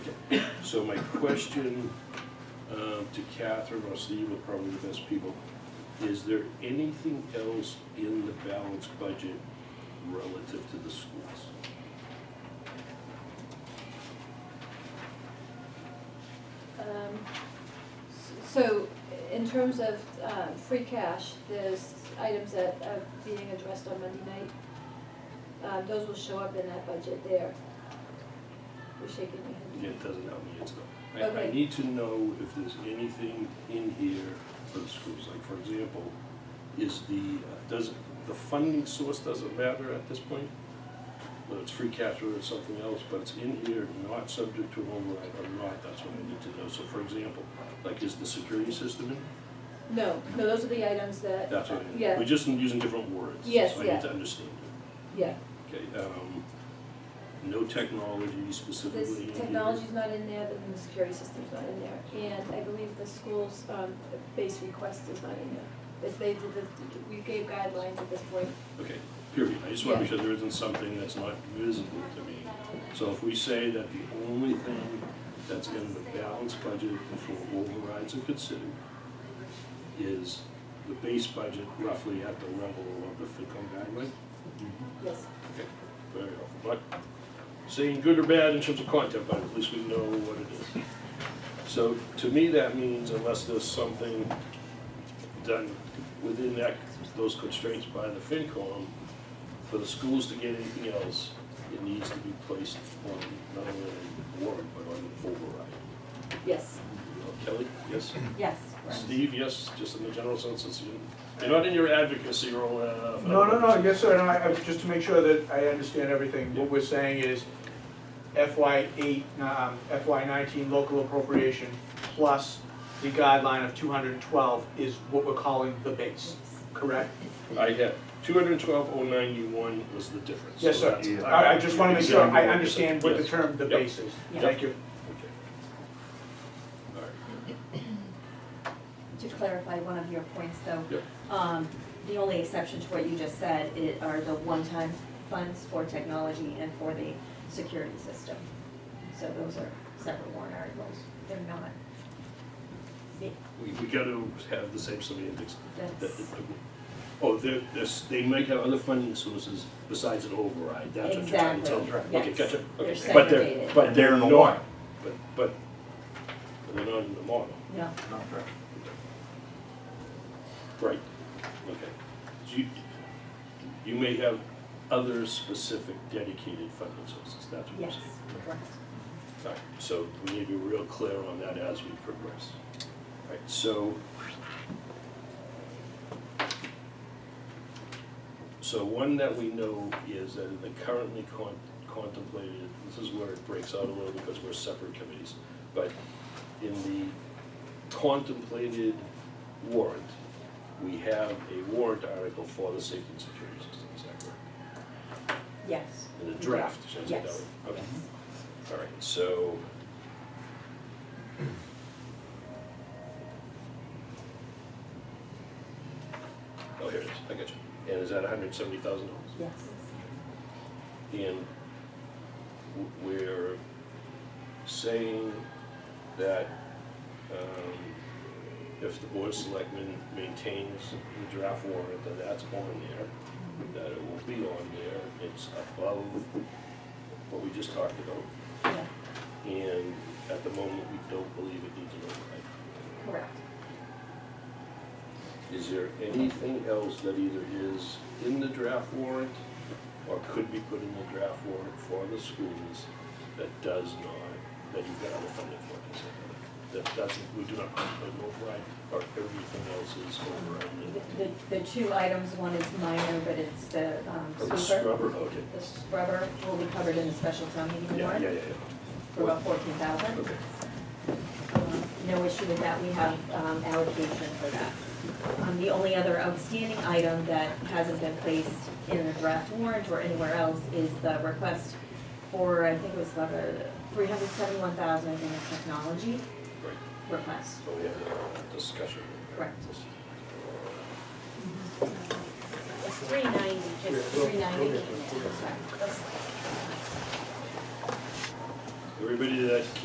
So my question um, to Catherine, or Steve, are probably the best people, is there anything else in the balanced budget relative to the schools? Um, s- So, in terms of uh, free cash, there's items that are being addressed on Monday night. Uh, Those will show up in that budget there. You're shaking your head. It doesn't help me, it's not. I, I Okay. need to know if there's anything in here for the schools, like, for example, is the, uh, does, the funding source doesn't matter at this point? Whether it's free cash or it's something else, but it's in here, not subject to an override or not, that's what I need to know. So for example, like, is the security system in? No, no, those are the items that. That's what I need. Yeah, We're just using different words. Yes, So I yeah. need to understand it. yeah. Okay, um, no technology specifically in This here? technology's not in there, then the security system's not in there. And I believe the school's um, base request is not in there. If they did, the- we gave guidelines at this point. Okay, period. I just want to be sure there isn't something that's not visible to me. So if we say that the only thing that's in the balanced budget before overrides are considered is the base budget roughly at the level of the FinCom guideline? Yes. Okay, very helpful. But saying good or bad in terms of content, but at least we know what it is. So to me, that means unless there's something done within that, those constraints by the FinCom, for the schools to get anything else, it needs to be placed on not only the warrant, but on the override. Yes. Uh, Kelly, yes? Yes. Steve, yes, just in the general sense, it's, you're not in your advocacy role. uh, for- No, no, no, yes, sir, and I, I- just to make sure that I understand everything, what we're saying is FY eight, um, FY nineteen local appropriation plus the guideline of two hundred and twelve is what we're calling the base, correct? I had two hundred twelve oh ninety-one was the difference. Yes, So sir, that's- I, I just wanna make sure I Exactly. understand what the Yes. term the Yep. base is, Yep. thank you. Okay. All right. To clarify one of your points though. Yep. Um, the only exception to what you just said i- are the one-time funds for technology and for the security system. So those are separate warrant articles. They're not, We, we gotta have the same semantics. That- that's, Oh, they're, this, they might have other funding sources besides an override, that's what you're trying to tell me. Exactly, Okay, yes. gotcha, okay. They're But segregated. But And they're they're in the not, warrant. but, but, but they're not in the model, no. right, okay. So You, you may have other specific dedicated funding sources, that's what you're Yes, saying. correct. All right, so we need to be real clear on that as we progress. All right, so. So one that we know is that in the currently con- contemplated, this is where it breaks out a little because we're separate committees. But in the contemplated warrant, we have a warrant article for the safety and security system, is that correct? Yes. In the draft, should I say that Yes. way? Okay. All right, so. Oh, here it is, I got you. And is that hundred seventy thousand dollars? Yes. And w- we're saying that, um, if the board of selectmen maintains the draft warrant, then that's on there, that it will be on there, it's above what we just talked about. Yeah, And at the moment, we don't believe it needs an override. correct. Is there anything else that either is in the draft warrant or could be put in the draft warrant for the schools that does not, that you've got other funding for, is that, that doesn't, we do not contemplate an override, or everything else is override? The, the two items, one is minor, but it's the um, Or Oh, the sweeper. scrubber, okay. The scrubber will be covered in the special town meeting Yeah, warrant yeah, yeah, yeah, for about fourteen thousand. okay. Um, No issue with that, we have um, allocation for that. Um, The only other outstanding item that hasn't been placed in the draft warrant or anywhere else is the request for, I think it was about a three hundred seventy-one thousand in the technology Right, request. so we have a discussion. Correct. It's three ninety, just three ninety. Yeah, go- go ahead. Everybody that